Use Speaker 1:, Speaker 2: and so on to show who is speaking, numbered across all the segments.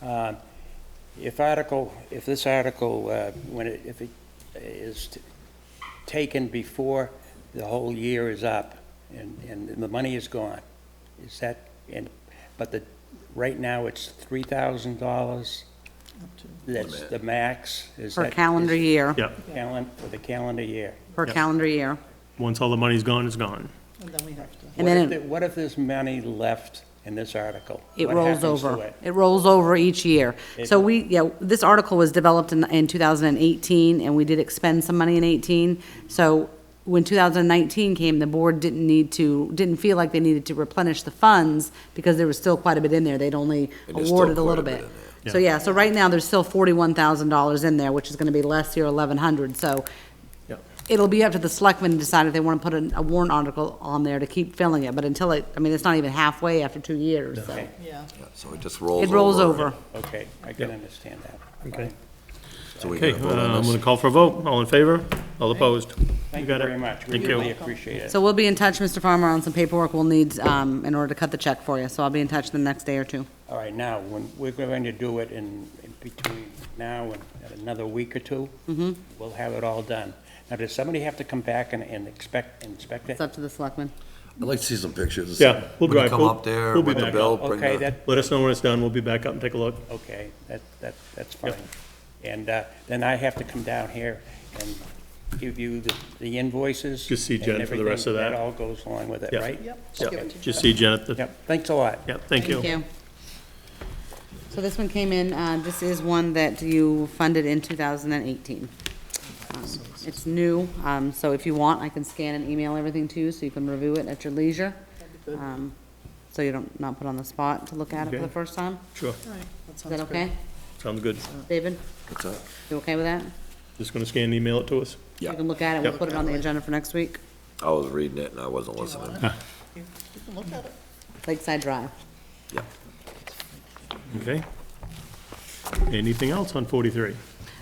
Speaker 1: Uh, If article, if this article, uh, when it, if it is t- taken before the whole year is up and, and the money is gone, is that, and, but the, right now it's three thousand dollars? That's the max? Is
Speaker 2: Per
Speaker 1: that-
Speaker 2: calendar
Speaker 1: is-
Speaker 2: year,
Speaker 3: Yeah,
Speaker 1: Calen, for the calendar year.
Speaker 2: per
Speaker 3: Yeah.
Speaker 2: calendar year.
Speaker 3: once all the money's gone, it's gone.
Speaker 4: And then we have to,
Speaker 2: And
Speaker 1: What
Speaker 2: then
Speaker 1: if
Speaker 2: it-
Speaker 1: the- What if there's money left in this article?
Speaker 2: It
Speaker 1: What
Speaker 2: rolls
Speaker 1: happens to
Speaker 2: over.
Speaker 1: it?
Speaker 2: It rolls over each year. So
Speaker 1: It-
Speaker 2: we, yeah, this article was developed in, in 2018, and we did expend some money in 18. So when 2019 came, the board didn't need to, didn't feel like they needed to replenish the funds because there was still quite a bit in there. They'd only
Speaker 5: there's still
Speaker 2: awarded a
Speaker 5: quite
Speaker 2: little
Speaker 5: a bit
Speaker 2: bit.
Speaker 3: there.
Speaker 2: So, yeah, so right now, there's still $41,000 in there, which is going to be less year 1,100. So
Speaker 3: Yeah.
Speaker 2: it'll be up to the selectmen to decide if they want to put an- a warrant article on there to keep filling it. But until it, I mean, it's not even halfway after two years, so.
Speaker 1: Okay.
Speaker 4: yeah.
Speaker 5: So it just rolls
Speaker 2: It
Speaker 5: over.
Speaker 2: rolls over.
Speaker 1: Okay, I can understand that.
Speaker 3: Okay.
Speaker 5: So we
Speaker 3: Okay,
Speaker 5: gotta
Speaker 3: uh,
Speaker 5: vote on
Speaker 3: I'm
Speaker 5: this.
Speaker 3: gonna call for a vote. All in favor? All opposed?
Speaker 1: Thank you
Speaker 3: got it.
Speaker 1: very much. We
Speaker 3: Thank you.
Speaker 1: really appreciate it.
Speaker 2: So we'll be in touch, Mr. Farmer, on some paperwork we'll need um, in order to cut the check for you. So I'll be in touch the next day or two.
Speaker 1: All right, now, when, we're going to do it in in between now and another week or 2 Mm-hmm. We'll have it all done. Now, does somebody have to come back and, and expect, inspect it?
Speaker 2: It's up to the selectmen.
Speaker 5: I'd like to see some pictures.
Speaker 3: Yeah,
Speaker 5: When
Speaker 3: we'll
Speaker 5: you
Speaker 3: drive.
Speaker 5: come
Speaker 3: We'll-
Speaker 5: up there
Speaker 3: we'll be
Speaker 5: with the
Speaker 3: back
Speaker 5: bill,
Speaker 3: up.
Speaker 5: bring
Speaker 1: Okay,
Speaker 5: the-
Speaker 1: that,
Speaker 3: Let us know when it's done. We'll be back up and take a look.
Speaker 1: okay, that, that, that's
Speaker 3: Yep.
Speaker 1: fine. And, uh, then I have to come down here and give you the, the invoices.
Speaker 3: Just see
Speaker 1: and
Speaker 3: Jen for the rest
Speaker 1: everything.
Speaker 3: of that.
Speaker 1: all goes along with it,
Speaker 3: Yep.
Speaker 1: right?
Speaker 4: Yep.
Speaker 3: Yeah,
Speaker 4: give it to
Speaker 3: Just see
Speaker 4: Jen.
Speaker 3: Jen at the,
Speaker 1: Yep, thanks a lot.
Speaker 3: yeah, thank
Speaker 2: Thank
Speaker 3: you.
Speaker 2: you. So this one came in, uh, this is one that you funded in 2018. Um, It's new, um, so if you want, I can scan and email everything to you so you can review it at your leisure. Um, So you don't, not put on the spot to look at it for the
Speaker 3: Okay.
Speaker 2: first time.
Speaker 3: Sure,
Speaker 4: All right, that
Speaker 2: Is
Speaker 4: sounds
Speaker 2: that
Speaker 4: good.
Speaker 2: okay?
Speaker 3: sounds good.
Speaker 2: David,
Speaker 5: What's that?
Speaker 2: you okay with that?
Speaker 3: Just gonna scan and email it to us.
Speaker 5: Yeah.
Speaker 2: You can look at it, we'll
Speaker 3: Yep.
Speaker 2: put it on the agenda for next week.
Speaker 5: I was reading it and I wasn't listening.
Speaker 4: You you can look at it.
Speaker 2: Lakeside Drive.
Speaker 5: Yeah.
Speaker 3: Okay. Anything else on 43?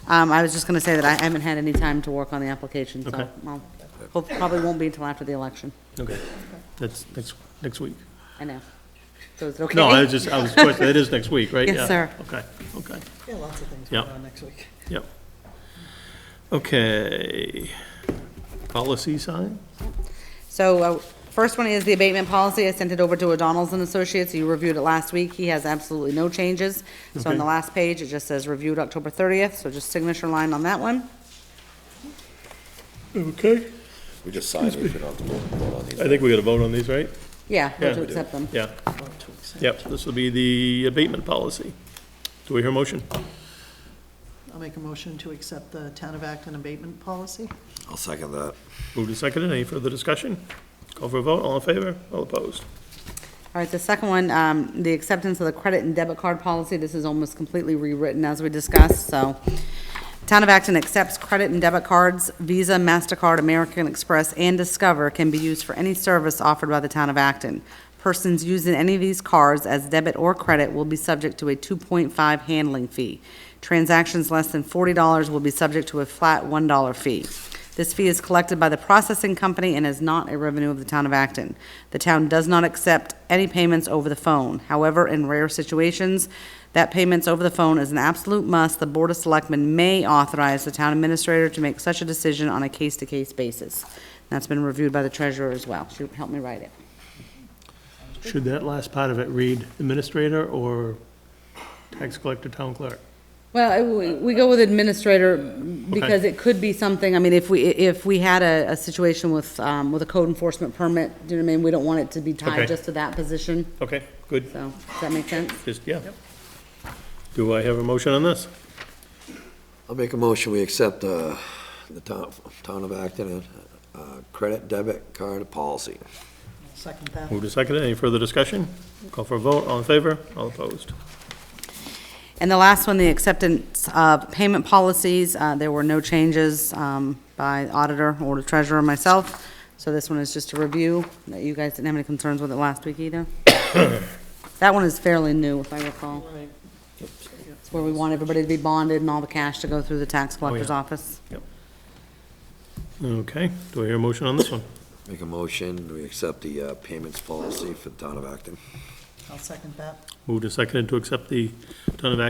Speaker 2: Um, I was just gonna say that I haven't had any time to work on the application, so,
Speaker 3: Okay.
Speaker 2: well, hope- probably won't be until after the election,
Speaker 3: Okay, that's next, next week.
Speaker 2: I know. So is it okay?
Speaker 3: No, I was just, I was, questioning- that is next week, right?
Speaker 2: Yes,
Speaker 3: Yeah.
Speaker 2: sir.
Speaker 3: Okay, okay,
Speaker 4: Yeah, lots of things
Speaker 3: Yeah.
Speaker 4: going on next week.
Speaker 3: yep. Okay. Policy sign?
Speaker 2: So, uh, first one is the abatement policy, I sent it over to O'Donnell's and Associates, you reviewed it last week, he has absolutely no changes. So on the
Speaker 3: Okay.
Speaker 2: last page, it just says reviewed October thirtieth, so just signature line on that one.
Speaker 3: Okay.
Speaker 5: We just signed it. We don't have to vote vote on
Speaker 3: I
Speaker 5: these.
Speaker 3: think we gotta vote on these, right?
Speaker 2: Yeah, we'll
Speaker 3: Yeah.
Speaker 2: to accept them.
Speaker 3: Yeah,
Speaker 4: Well, two weeks.
Speaker 3: yep, this will be the abatement policy. Do we hear a motion?
Speaker 4: I'll make a motion to accept the Town of Acton abatement policy.
Speaker 5: I'll second that.
Speaker 3: Moved and seconded, any further discussion? Call for a vote, all in favor, all opposed?
Speaker 2: All right, the second one, um, the acceptance of the credit and debit card policy, this is almost completely rewritten as we discussed, so. Town of Acton accepts credit and debit cards, Visa, MasterCard, American Express, and Discover can be used for any service offered by the town of Acton. Persons using any of these cards as debit or credit will be subject to a two point five handling fee. Transactions less than forty dollars will be subject to a flat one dollar fee. This fee is collected by the processing company and is not a revenue of the town of Acton. The town does not accept any payments over the phone. However, in rare situations, that payments over the phone is an absolute must. The Board of Selectmen may authorize the town administrator to make such a decision on a case-to-case basis. That's been reviewed by the treasurer as well. She helped me write it.
Speaker 3: Should that last part of it read administrator or tax collector, town clerk?
Speaker 2: Well, I- we- we go with administrator because it could be something, I mean, if we, if we had a, a situation with, um, with a code enforcement permit, do you know what I mean? We don't want it to be tied
Speaker 3: Okay.
Speaker 2: just to that position,
Speaker 3: Okay, good,
Speaker 2: so, does that make sense?
Speaker 3: just, yeah. Do I have a motion on this?
Speaker 5: I'll make a motion, we accept uh, the town town of Acton uh, credit debit card policy.
Speaker 4: Second that.
Speaker 3: Moved and seconded, any further discussion? Call for a vote, all in favor, all opposed?
Speaker 2: And the last one, the acceptance of payment policies, uh, there were no changes um, by auditor or the treasurer myself. So this one is just a review, that you guys didn't have any concerns with it last week either. That one is fairly new, if I recall.
Speaker 4: All right.
Speaker 2: It's where we want everybody to be bonded and all the cash to go through the tax collector's
Speaker 3: yeah.
Speaker 2: office.
Speaker 3: Okay, do I hear a motion on this one?
Speaker 5: Make a motion, we accept the uh, payments policy for the town of Acton.
Speaker 4: I'll second that.
Speaker 3: Moved and seconded to accept the town of Acton